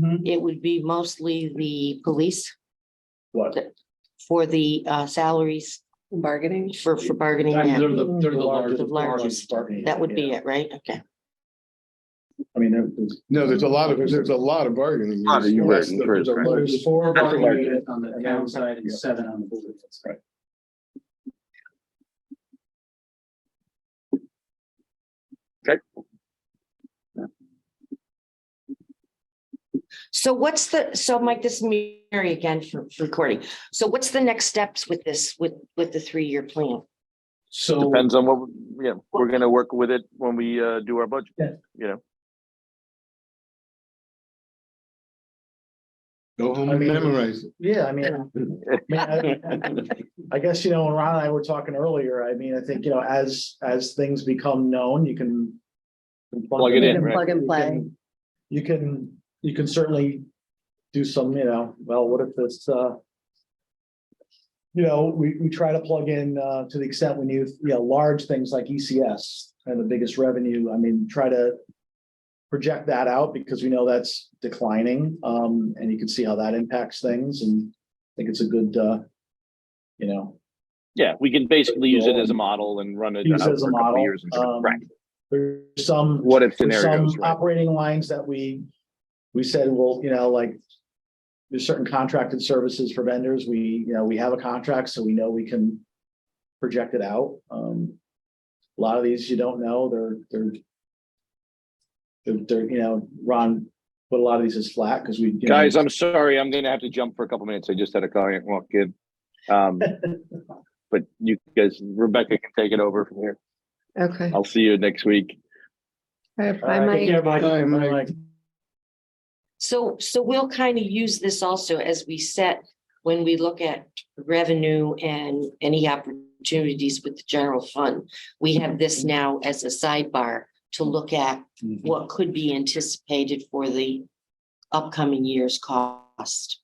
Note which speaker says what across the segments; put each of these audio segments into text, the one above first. Speaker 1: Mhm.
Speaker 2: It would be mostly the police
Speaker 1: What?
Speaker 2: for the uh, salaries
Speaker 3: bargaining.
Speaker 2: for, for bargaining.
Speaker 1: I mean,
Speaker 2: yeah.
Speaker 1: They're the, they're the largest.
Speaker 2: largest.
Speaker 1: bargaining
Speaker 2: That would be
Speaker 1: unit.
Speaker 2: it, right? Okay.
Speaker 1: I mean, there- there's.
Speaker 4: No, there's a lot of, there's a lot of bargaining.
Speaker 5: Lot of
Speaker 4: units.
Speaker 5: bargaining,
Speaker 4: There's a
Speaker 5: right.
Speaker 4: lot-
Speaker 1: There's four
Speaker 5: That's the
Speaker 1: bargaining
Speaker 5: largest.
Speaker 1: units on the town side and
Speaker 4: Yeah.
Speaker 1: seven on the board. That's right.
Speaker 2: So what's the, so Mike, this is Mary again for for recording. So what's the next steps with this, with, with the three-year plan?
Speaker 1: So
Speaker 5: Depends on what, we- yeah, we're gonna work with it when we uh do our budget.
Speaker 4: Go home
Speaker 1: I
Speaker 4: and
Speaker 1: mean-
Speaker 4: memorize it.
Speaker 6: Yeah, I mean, I mean, I- I guess, you know, when Ron and I were talking earlier, I mean, I think, you know, as, as things become known, you can.
Speaker 5: Plug it in,
Speaker 6: You can-
Speaker 5: right.
Speaker 3: Plug and
Speaker 6: you
Speaker 3: play.
Speaker 6: can- You can, you can certainly do some, you know, well, what if this, uh. You know, we, we try to plug in, uh, to the extent when you, you know, large things like ECS and the biggest revenue, I mean, try to. Project that out because we know that's declining, um, and you can see how that impacts things and I think it's a good, uh. You know,
Speaker 5: Yeah, we can basically use it as a model and run it.
Speaker 6: use
Speaker 5: out
Speaker 6: as
Speaker 5: for
Speaker 6: a
Speaker 5: a couple
Speaker 6: model.
Speaker 5: years and-
Speaker 6: um,
Speaker 5: Right,
Speaker 6: There's some.
Speaker 5: what if
Speaker 6: There's some
Speaker 5: scenarios, right?
Speaker 6: operating lines that we, we said, well, you know, like. There's certain contracted services for vendors. We, you know, we have a contract, so we know we can project it out. Um. A lot of these you don't know, they're, they're. They're, they're, you know, Ron, put a lot of these as flat because we. you know,
Speaker 5: Guys, I'm sorry, I'm gonna have to jump for a couple minutes. I just had a client walk in. Um, but you guys, Rebecca can take it over from here.
Speaker 3: Okay.
Speaker 5: I'll see you next week.
Speaker 3: Bye, Mike.
Speaker 4: Bye, Mike.
Speaker 2: So, so we'll kind of use this also as we set, when we look at revenue and any opportunities with the general fund. We have this now as a sidebar to look at what could be anticipated for the upcoming year's cost.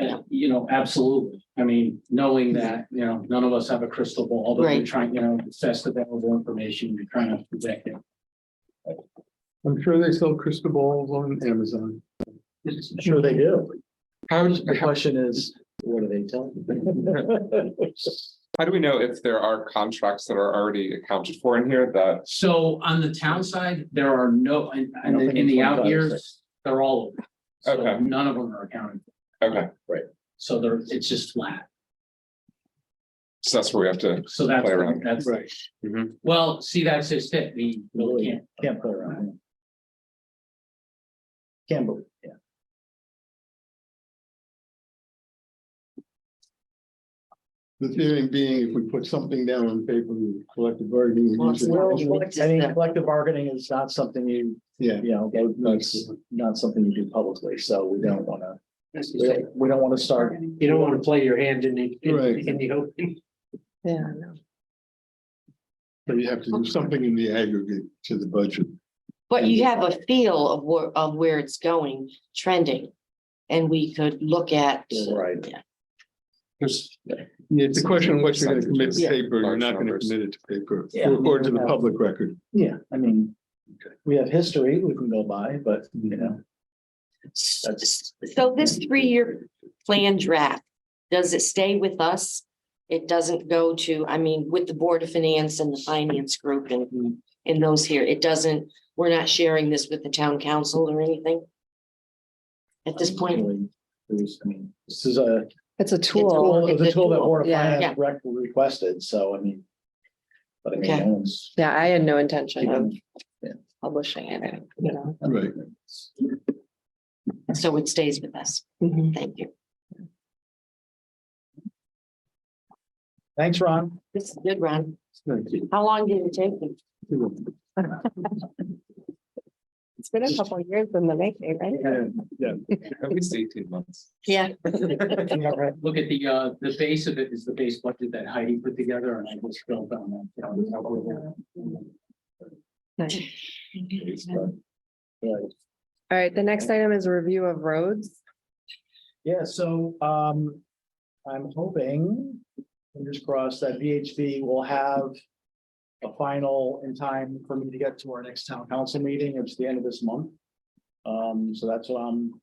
Speaker 2: Yeah.
Speaker 1: You know, absolutely. I mean, knowing that, you know, none of us have a crystal ball, but we're
Speaker 2: Right.
Speaker 1: trying, you know, assess available information, we're trying to project it.
Speaker 4: I'm sure they sell crystal balls on Amazon.
Speaker 6: Sure they do.
Speaker 7: How,
Speaker 6: The question is, what are they telling? you?
Speaker 7: how do we know if there are contracts that are already accounted for in here that,
Speaker 1: So on the town side, there are no, and,
Speaker 6: I don't think
Speaker 1: in
Speaker 6: it's
Speaker 1: the
Speaker 6: one
Speaker 1: out
Speaker 6: five or
Speaker 1: years, they're all over. So
Speaker 7: Okay.
Speaker 1: none of them are accounted. for.
Speaker 7: okay,
Speaker 1: So they're, it's just flat.
Speaker 7: so that's where we have to,
Speaker 1: So that's,
Speaker 7: Play around.
Speaker 1: that's,
Speaker 4: Right.
Speaker 1: well, see, that's just it. We really can't.
Speaker 6: Can't play around. yeah. Can't believe, yeah.
Speaker 4: The theory being, if we put something down on paper, we collective bargaining.
Speaker 2: Well, it's
Speaker 4: agreement.
Speaker 2: not-
Speaker 6: Well,
Speaker 2: you would
Speaker 6: I mean,
Speaker 2: just-
Speaker 6: collective bargaining is not something you,
Speaker 4: Yeah.
Speaker 6: you know, that's not something you do publicly, so we don't wanna, we don't, we don't wanna start.
Speaker 8: You don't want to play your hand in the, in
Speaker 4: Right.
Speaker 8: the- in the open.
Speaker 3: Yeah, I know.
Speaker 4: So you have to do something in the aggregate to the budget.
Speaker 2: But you have a feel of where, of where it's going, trending. And we could look at,
Speaker 6: Right.
Speaker 4: It's it's a question of what you're gonna commit to
Speaker 2: Yeah.
Speaker 4: paper, you're
Speaker 7: Large
Speaker 4: not gonna
Speaker 7: numbers.
Speaker 4: commit it to paper,
Speaker 6: Yeah.
Speaker 4: or- or to the public record.
Speaker 6: Yeah, I mean, we have history we can go by, but, you know,
Speaker 2: so this three-year plan draft, does it stay with us? It doesn't go to, I mean, with the Board of Finance and the Finance Group and, and those here, it doesn't, we're not sharing this with the town council or anything? At this point,
Speaker 6: really, there's, I mean, this is a,
Speaker 3: It's a
Speaker 2: all-
Speaker 3: tool.
Speaker 6: well, it was a tool that Board of
Speaker 3: Yeah.
Speaker 6: Finance
Speaker 2: Yeah.
Speaker 6: rec- requested, so I mean. But I mean,
Speaker 2: Okay.
Speaker 6: no one's.
Speaker 3: Yeah, I had no intention of
Speaker 6: you
Speaker 3: publishing it, you know.
Speaker 4: Right.
Speaker 2: so it stays with us.
Speaker 3: Mhm.
Speaker 2: Thank you.
Speaker 6: Thanks, Ron.
Speaker 2: This is good, Ron.
Speaker 4: Thank you.
Speaker 2: How long did it take you?
Speaker 3: It's been a couple of years in the making, right?
Speaker 7: at least eighteen months.
Speaker 2: Yeah.
Speaker 1: Look at the, uh, the base of it is the base budget that Heidi put together and I just built on that. you know, how we're-
Speaker 3: All right, the next item is a review of roads.
Speaker 6: Yeah, so um, I'm hoping, fingers crossed, that VHB will have. A final in time for me to get to our next town council meeting, it's the end of this month. Um, so that's what I'm